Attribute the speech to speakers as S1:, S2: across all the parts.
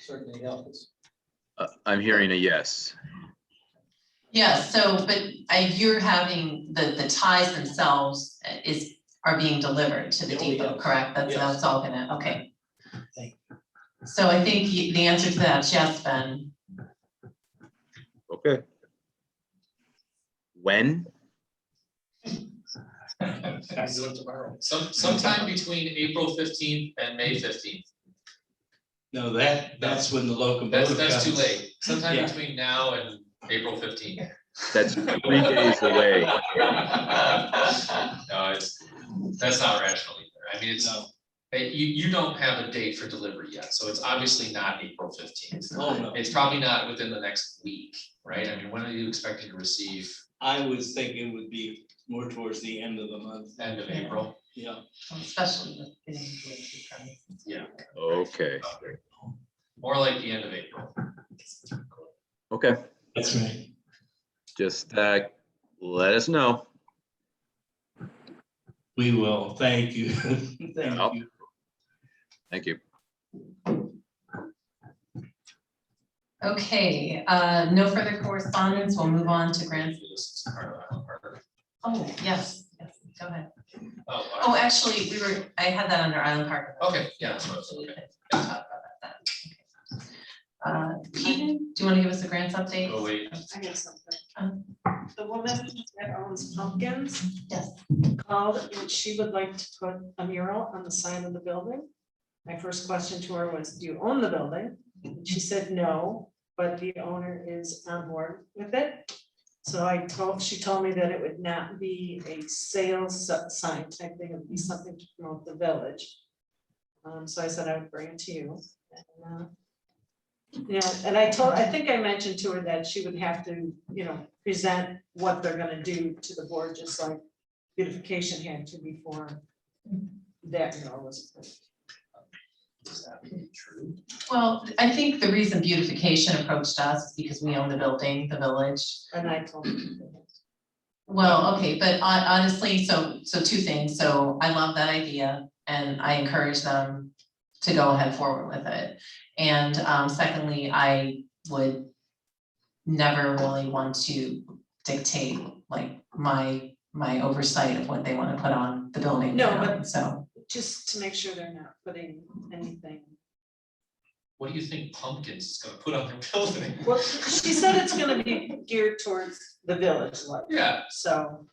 S1: certainly helps.
S2: Uh, I'm hearing a yes.
S3: Yeah, so, but I, you're having, the, the ties themselves uh, is, are being delivered to the
S1: Yeah, we
S3: depot,
S1: do.
S3: correct? That's,
S1: Yes.
S3: that's all gonna, okay.
S1: Thank
S3: So I think you- the answer to that, yes, Ben,
S2: Okay. When?
S1: I do it tomorrow.
S4: Some, sometime between April fifteenth and May fifteenth.
S5: No, that, that's when the
S4: That's,
S5: locomotive.
S4: that's too
S5: comes.
S4: late. Sometime
S5: Yeah.
S4: between now and April fifteenth.
S2: That's three days away.
S4: No, it's, that's not rational either. I mean, it's,
S5: No,
S4: eh, you, you don't have a date for delivery yet, so it's obviously not April fifteenth.
S5: oh no,
S4: It's probably not within the next week, right? I mean, when are you expecting to receive?
S5: I was thinking it would be more towards the end of the month,
S4: End of
S3: Yeah.
S4: April?
S5: yeah.
S3: especially with getting the AC permit.
S2: Okay,
S4: Or like the end of April.
S2: okay.
S5: That's right.
S2: Just uh, let us know.
S5: We will, thank you. Thank you.
S2: Thank you.
S3: Okay, uh, no further correspondence, we'll move on to grants.
S4: This is part of Island Park.
S3: Oh, yes, yes, go ahead.
S4: Oh,
S3: Oh, actually, we were, I had that under Island Park.
S4: Okay, yeah, that's what I was
S3: We'll
S4: looking
S3: talk about that then. Uh, Keaton, do you want to give us a grants update?
S4: Oh, wait,
S6: I know something.
S3: Um.
S6: The woman that owns pumpkins
S3: Yes.
S6: called and she would like to put a mural on the sign of the building. My first question to her was, do you own the building? She said, no, but the owner is on board with it. So I told, she told me that it would not be a sales si- sign type thing, it would be something to promote the village. Um, so I said I would bring it to you. And, uh, yeah, and I told, I think I mentioned to her that she would have to, you know, present what they're gonna do to the board, just like beautification had to before that law was approved.
S4: is that really true?
S3: Well, I think the reason beautification approached us is because we own the building, the village.
S6: And I told her.
S3: Well, okay, but hon- honestly, so, so two things. So I love that idea and I encourage them to go ahead forward with it. And um, secondly, I would never really want to dictate like my, my oversight of what they want to put on the building.
S6: No,
S3: now,
S6: but-
S3: So,
S6: Just to make sure they're not putting anything.
S4: What do you think pumpkins is gonna put on their building?
S6: Well, she said it's gonna be geared towards the village, like,
S4: Yeah,
S6: so.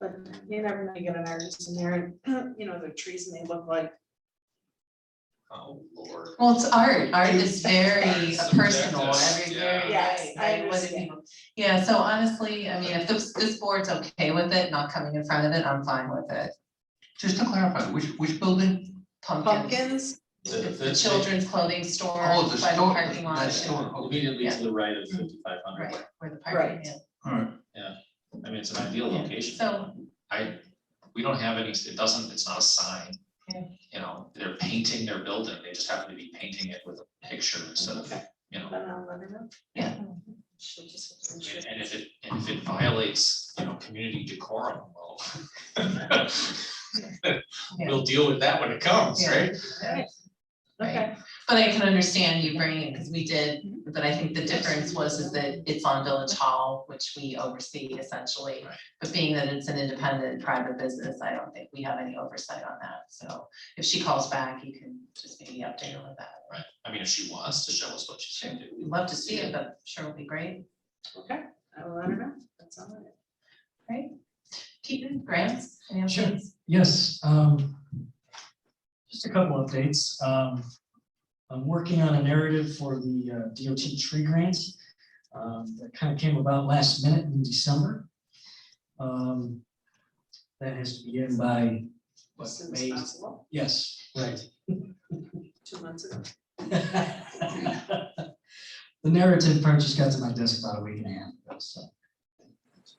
S6: But you never know, you get an artist in there, and, you know, the trees may look like
S4: oh lord.
S3: well, it's art. Art is very uh,
S4: Subjective,
S3: personal, every very.
S6: yeah. Yes, I
S3: right, what do
S6: understand.
S3: people- Yeah, so honestly, I mean, if this, this board's okay with it, not coming in front of it, I'm fine with it.
S7: Just to clarify, which, which building?
S3: Pumpkins,
S6: pumpkins.
S3: it's the children's clothing store
S7: Oh, the
S3: by the
S7: store,
S3: parking lot.
S7: that store, okay.
S4: Immediately
S3: Yeah.
S4: to the right of fifty-five hundred,
S3: Right, where the parking
S6: Right.
S3: is.
S7: Alright,
S4: I mean, it's an ideal
S3: Yeah.
S4: location.
S3: So,
S4: I, we don't have any, it doesn't, it's not a sign.
S3: Yeah.
S4: You know, they're painting their building, they just happen to be painting it with a picture instead of,
S6: Okay.
S4: you know.
S6: Then I'll let her know.
S3: Yeah.
S6: She'll just.
S4: And and if it, and if it violates, you know, community decorum, well. We'll deal with that when it comes,
S3: Yeah.
S4: right?
S6: Okay.
S3: but I can understand you bringing it, because we did,
S4: Mm-hmm.
S3: but I think the difference was is that it's on Village Hall, which we oversee essentially.
S4: Right.
S3: But being that it's an independent private business, I don't think we have any oversight on that. So if she calls back, you can just maybe update her with that.
S4: Right, I mean, if she wants to show us what she's gonna do.
S3: We'd love to see it, but sure will be great.
S6: Okay, I will let her know, that's all right.
S3: Keaton, grants, any other
S8: Sure.
S3: things?
S8: Yes, um, just a couple updates. Um, I'm working on a narrative for the uh, DOT tree grant. um, that kind of came about last minute in December. Um, that has to be in by, what,
S6: As soon as
S8: May?
S6: possible,
S8: Yes, right.
S6: two months ago.
S8: The narrative part just got to my desk about a week and a half ago, so.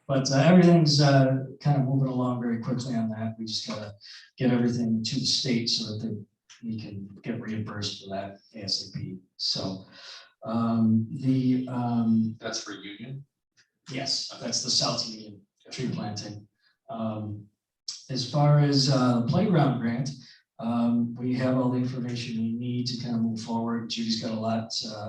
S8: But uh, everything's uh, kind of moving along very quickly on that. We just gotta get everything to the state so that they, we can get reimbursed for that ASAP. So um, the, um,
S4: That's for union.
S8: Yes, that's the South Union tree planting. Um, as far as uh, playground grant, Um, we have all the information we need to kind of move forward. Judy's got a lot, uh,